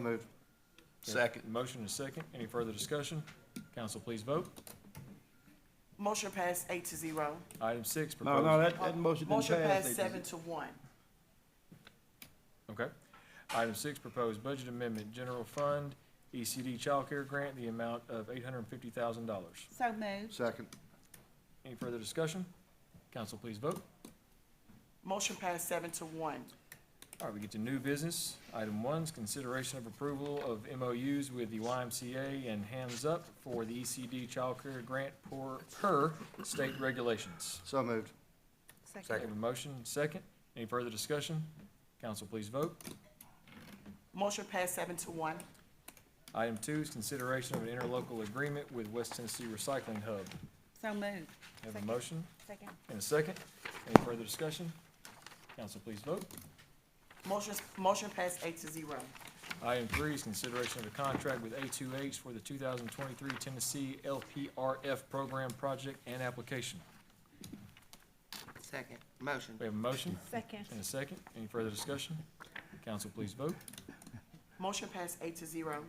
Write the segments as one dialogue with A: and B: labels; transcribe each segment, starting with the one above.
A: Moved.
B: Second. Motion is second. Any further discussion? Council, please vote.
C: Motion passed eight to zero. Uh,
B: Item six,
A: No, no,
B: proposed,
A: that, that motion didn't
C: Motion
A: pass.
C: passed seven to one.
B: okay. Item six, proposed budget amendment, general fund, E ECD Child Care grant, the amount of eight hundred and fifty thousand dollars.
D: So moved.
A: Second.
B: Any further discussion? Council, please vote.
C: Motion passed seven to one.
B: All right, we get to new business. Item one is consideration of approval of MOUs with the YMCA and Hands Up for the E ECD Child Care grant per, per state regulations.
A: So moved.
B: We have a motion, second. Any further discussion? Council, please vote.
C: Motion passed seven to one.
B: Item two is consideration of an interlocal agreement with West Tennessee Recycling Hub.
D: So moved.
B: Have a
D: Second.
B: motion
D: Second.
B: and a second. Any further discussion? Council, please vote.
C: Motion, motion passed eight to zero.
B: Item three is consideration of a contract with A2H for the 2023 Tennessee LPRF program project and application.
E: Second, motion,
B: We have a motion
D: Second.
B: and a second. Any further discussion? Council, please vote.
C: Motion passed eight to zero.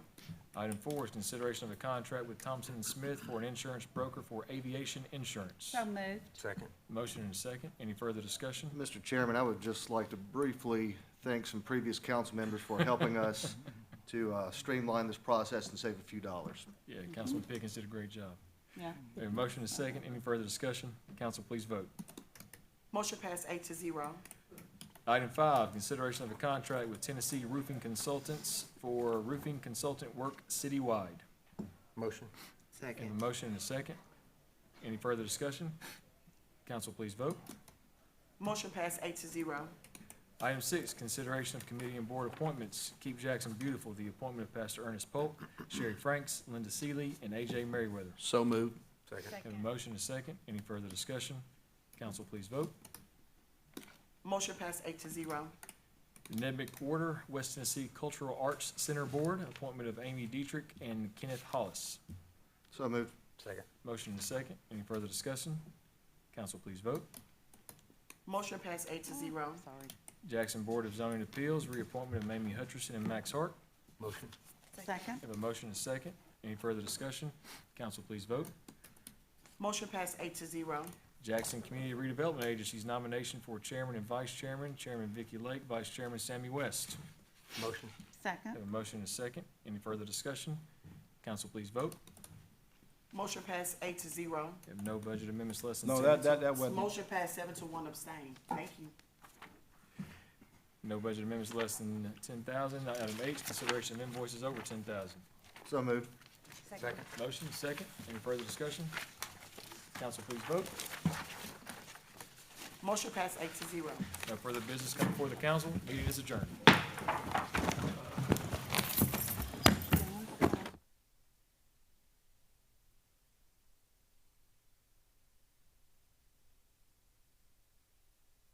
B: Item four is consideration of a contract with Thompson and Smith for an insurance broker for aviation insurance.
D: So moved.
E: second,
B: Motion and a second. Any further discussion?
A: Mr. Chairman, I would just like to briefly thank some previous council members for helping us to uh, streamline this process and save a few dollars.
B: Yeah, Councilman Pickens did a great job.
D: Yeah.
B: We have a motion and a second. Any further discussion? Council, please vote.
C: Motion passed eight to zero.
B: Item five, consideration of a contract with Tennessee Roofing Consultants for roofing consultant work citywide.
F: Motion,
B: We have
E: second,
B: a motion and a second. Any further discussion? Council, please vote.
C: Motion passed eight to zero.
B: Item six, consideration of committee and board appointments. Keep Jackson Beautiful, the appointment of Pastor Ernest Polk, Sherry Franks, Linda Seeley, and A.J. Merriweather.
A: So moved.
F: second,
B: We Have a motion and a second. Any further discussion? Council, please vote.
C: Motion passed eight to zero.
B: Ned McWhorter, West Tennessee Cultural Arts Center Board, appointment of Amy Dietrich and Kenneth Hollis.
A: So moved.
F: second,
B: Motion and a second. Any further discussion? Council, please vote.
C: Motion passed eight to zero.
D: Sorry.
B: Jackson Board of Zoning Appeals, reappointment of Mamie Hutcherson and Max Hart.
F: motion,
D: Second.
B: Have a motion and a second. Any further discussion? Council, please vote.
C: Motion passed eight to zero.
B: Jackson Community Redevelopment Agency's nomination for chairman and vice chairman, Chairman Vicky Lake, Vice Chairman Sammy West.
F: motion,
D: Second.
B: Have a motion and a second. Any further discussion? Council, please vote.
C: Motion passed eight to zero.
B: Have no budget amendments less than
A: No,
B: ten.
A: that, that, that wasn't.
C: Motion passed seven to one abstain. Thank you.
B: No budget amendments less than ten thousand. Item eight, consideration of invoices over ten thousand.
A: So moved.
F: second,
B: Motion, second. Any further discussion? Council, please vote.
C: Motion passed eight to zero.
B: No further business coming before the council. Meeting is adjourned.